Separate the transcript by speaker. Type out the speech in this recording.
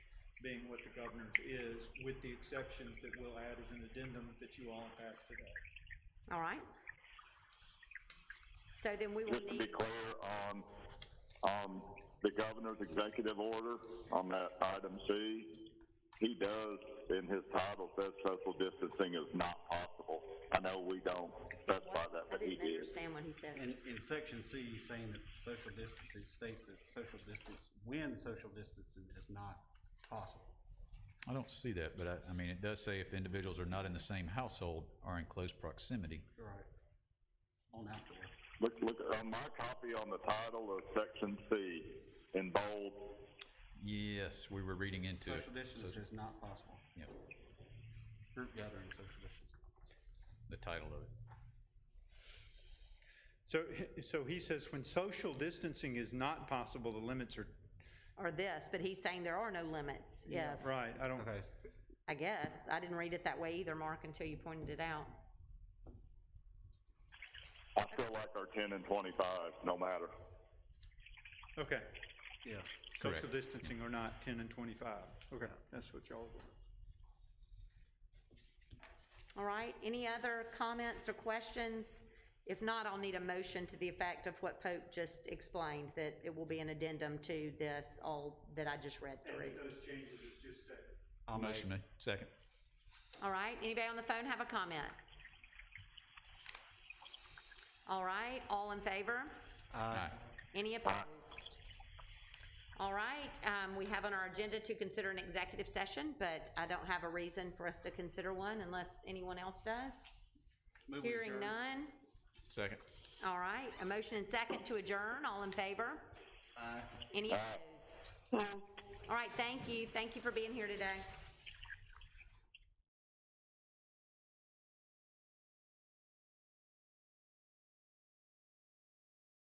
Speaker 1: being what the governor's is, with the exceptions that we'll add as an addendum that you all passed today.
Speaker 2: All right. So then we will
Speaker 3: Just to be
Speaker 2: need,
Speaker 3: clear on, on the governor's executive order on that item C, he does, in his title, says social distancing is not possible. I know we don't specify that,
Speaker 2: I
Speaker 3: but he
Speaker 2: didn't
Speaker 3: did.
Speaker 2: understand what he said.
Speaker 4: In, in section C, you're saying that social distancing states that social distance, when social distancing is not possible.
Speaker 5: I don't see that, but I, I mean, it does say if individuals are not in the same household or in close proximity.
Speaker 4: Right. On outdoor.
Speaker 3: Look, look, on my copy on the title of section C, in bold,
Speaker 5: Yes, we were reading into it.
Speaker 4: Social distance is not possible.
Speaker 5: Yeah,
Speaker 4: Group gathering, social distance.
Speaker 5: the title of it.
Speaker 1: So, so he says when social distancing is not possible, the limits are,
Speaker 2: Or this, but he's saying there are no limits, if,
Speaker 1: right, I don't,
Speaker 4: Okay,
Speaker 2: I guess. I didn't read it that way either, Mark, until you pointed it out.
Speaker 3: I still like our ten and twenty-five, no matter.
Speaker 1: okay.
Speaker 4: yes.
Speaker 1: Social
Speaker 5: Correct.
Speaker 1: distancing or not, 10 and 25. Okay, that's what y'all,
Speaker 2: All right, any other comments or questions? If not, I'll need a motion to the effect of what Pope just explained, that it will be an addendum to this, all that I just read through.
Speaker 4: I'll make,
Speaker 5: Motion made, second.
Speaker 2: All right, anybody on the phone have a comment? All right, all in favor?
Speaker 4: uh,
Speaker 5: Aye.
Speaker 2: Any opposed? All right, um, we have on our agenda to consider an executive session, but I don't have a reason for us to consider one unless anyone else does.
Speaker 4: move
Speaker 2: Hearing
Speaker 4: adjourned.
Speaker 2: none.
Speaker 5: Second.
Speaker 2: All right, a motion and second to adjourn, all in favor?
Speaker 4: Aye.
Speaker 2: Any opposed? All right, thank you, thank you for being here today.